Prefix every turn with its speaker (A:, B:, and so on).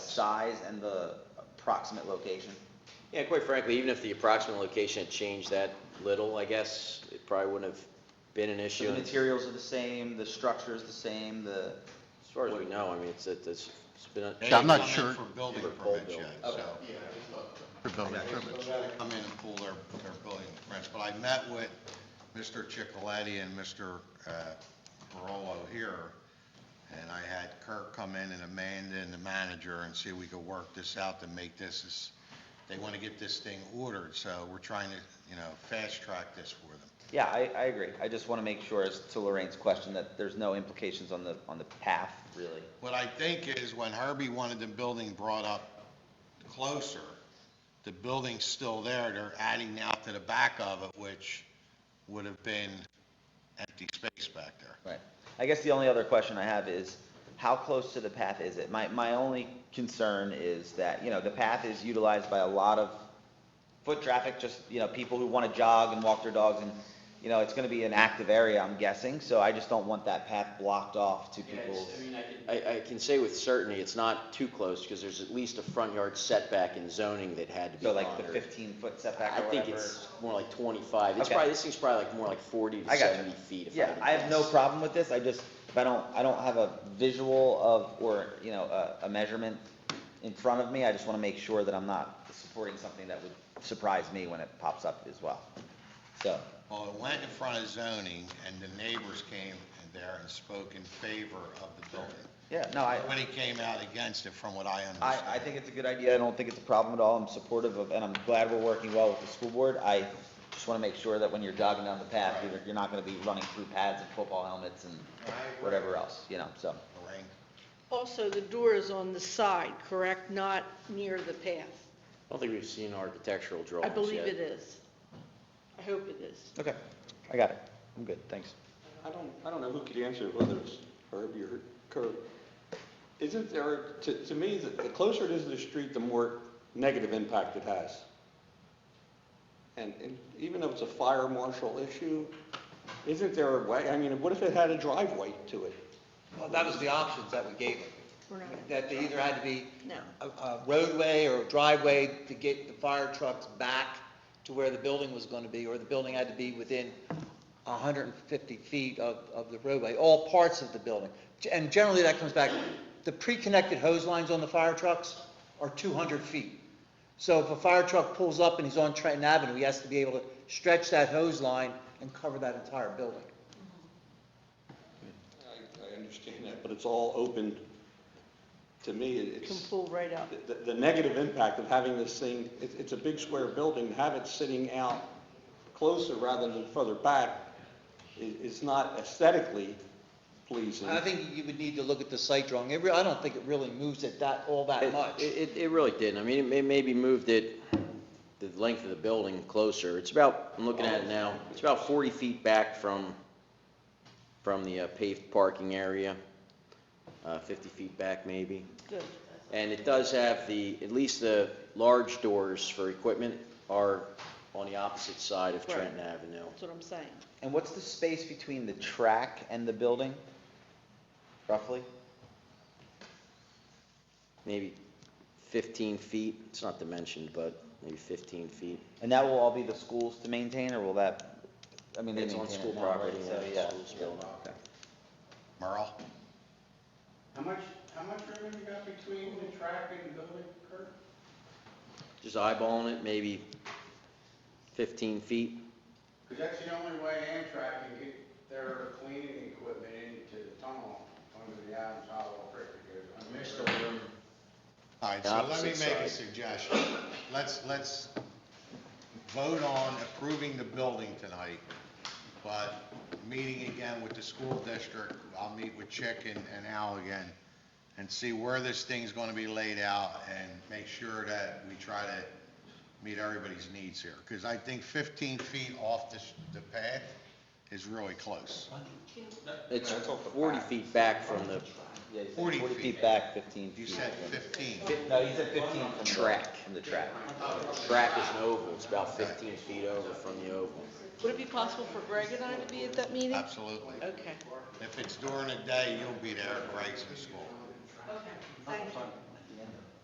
A: size and the approximate location?
B: Yeah, quite frankly, even if the approximate location had changed that little, I guess, it probably wouldn't have been an
A: So
B: issue.
A: the materials are the same, the structure is the same, the,
B: As far as we know, I mean, it's, it's it's been. a-
C: Yeah, I'm not
D: They
C: sure.
D: haven't come in for building
B: For full
D: permits
B: building.
D: yet, so.
C: for building permits.
D: they Come in and pull their, their building permits. But I met with Mr. Chicoletti and Mr. uh, Barolo here, and I had Kirk come in and Amanda and the manager and see if we could work this out to make this, as- they want to get this thing ordered, so we're trying to, you know, fast track this for them.
A: yeah, I, I agree. I just want to make sure, as to Lorraine's question, that there's no implications on the, on the path, really.
D: What I think is when Herbie wanted the building brought up closer, the building's still there, they're adding now to the back of it, which would have been empty space back there.
A: Right. I guess the only other question I have is, how close to the path is it? My, my only concern is that, you know, the path is utilized by a lot of foot traffic, just, you know, people who want to jog and walk their dogs, and, you know, it's going to be an active area, I'm guessing, so I just don't want that path blocked off to
B: Yeah, it's-
A: people's.
B: I mean, I can- I, I can say with certainty, it's not too close, because there's at least a front yard setback in zoning that had to be
A: So like the
B: honored.
A: fifteen foot setback
B: I
A: or
B: think
A: whatever.
B: it's more like twenty-five, it's
A: Okay.
B: probably, this thing's probably like more like forty to
A: I got you.
B: seventy feet, if I had
A: Yeah,
B: to
A: I have no
B: guess.
A: problem with this, I just, if I don't, I don't have a visual of, or, you know, a, a measurement in front of me, I just wanna make sure that I'm not supporting something that would surprise me when it pops up as well. So,
D: Well, it went in front of zoning, and the neighbors came in there and spoke in favor of the building.
A: yeah, no, I,
D: Nobody came out against it, from what I
A: I,
D: understand.
A: I think it's a good idea, I don't think it's a problem at all, I'm supportive of, and I'm glad we're working well with the school board, I just wanna make sure that when you're jogging down the path, you're, you're not gonna be running through pads and football helmets and whatever else, you know, so.
D: Lorraine?
E: Also, the door is on the side, correct? Not near the path?
B: I don't think we've seen architectural drawings
E: I
B: yet.
E: believe it is. I hope it is.
A: Okay. I got it, I'm good, thanks.
F: I don't, I don't know who could answer, whether it's Herbie or Kurt. Isn't there, to, to me, the the closer it is to the street, the more negative impact it has. And, and even if it's a fire marshal issue, isn't there a way, I mean, what if it had a driveway to it?
G: Well, that was the options that we gave them,
E: We're not-
G: that they either had to be
E: No.
G: a- a roadway or a driveway to get the fire trucks back to where the building was going to be, or the building had to be within 150 feet of, of the roadway, all parts of the building. And generally, that comes back, the pre-connected hose lines on the fire trucks are 200 feet. So if a fire truck pulls up and he's on Trenton Avenue, he has to be able to stretch that hose line and cover that entire building.
F: I, I understand that, but it's all open, to me,
E: You
F: it's.
E: Can pull right up.
F: the, the negative impact of having this thing, it's, it's a big square building, have it sitting out closer rather than further back is, is not aesthetically pleasing.
G: I think you would need to look at the site drawing. It re- I don't think it really moves it that, all that
B: It-
G: much.
B: It, it- it really didn't, I mean, it may- maybe moved it, the length of the building closer, it's about, I'm looking at it now, it's about forty feet back from, from the uh, paved parking area, uh, fifty feet back maybe.
E: Good.
B: And it does have the, at least the large doors for equipment are on the opposite side of
E: Right.
B: Trenton Avenue.
E: That's what I'm saying.
A: And what's the space between the track and the building, roughly?
B: Maybe fifteen feet, it's not dimensioned, but maybe fifteen feet.
A: And that will all be the schools to maintain, or will that, I mean, they
B: It's
A: maintain
B: on school
A: it now, right?
B: property,
A: So,
B: yeah,
A: yeah.
B: schools building.
A: Okay.
D: Merle?
H: How much, how much room you got between the track and the building, Kurt?
B: Just eyeballing it, maybe fifteen feet.
H: Because that's the only way Amtrak can get their cleaning equipment into the tunnel under the Adams Hollow Creek. Missed the room.
D: All right, so let me make a suggestion. Let's, let's vote on approving the building tonight, but meeting again with the school district, I'll meet with Chick and, and Al again, and see where this thing's gonna be laid out, and make sure that we try to meet everybody's needs here. Because I think fifteen feet off the, s- the path is really close.
B: It's forty feet back from the
A: Yeah, he said
D: 40
A: Forty feet
D: feet.
A: back, fifteen
D: You
A: feet.
D: said fifteen.
A: No, he said fifteen from the.
B: Track.
A: From the track.
B: track is an oval, it's about fifteen feet over from the oval.
E: Would it be possible for Greg and I to be at that meeting?
D: Absolutely.
E: Okay.
D: If it's during the day, you'll be there at breaks in school.
E: Thank you.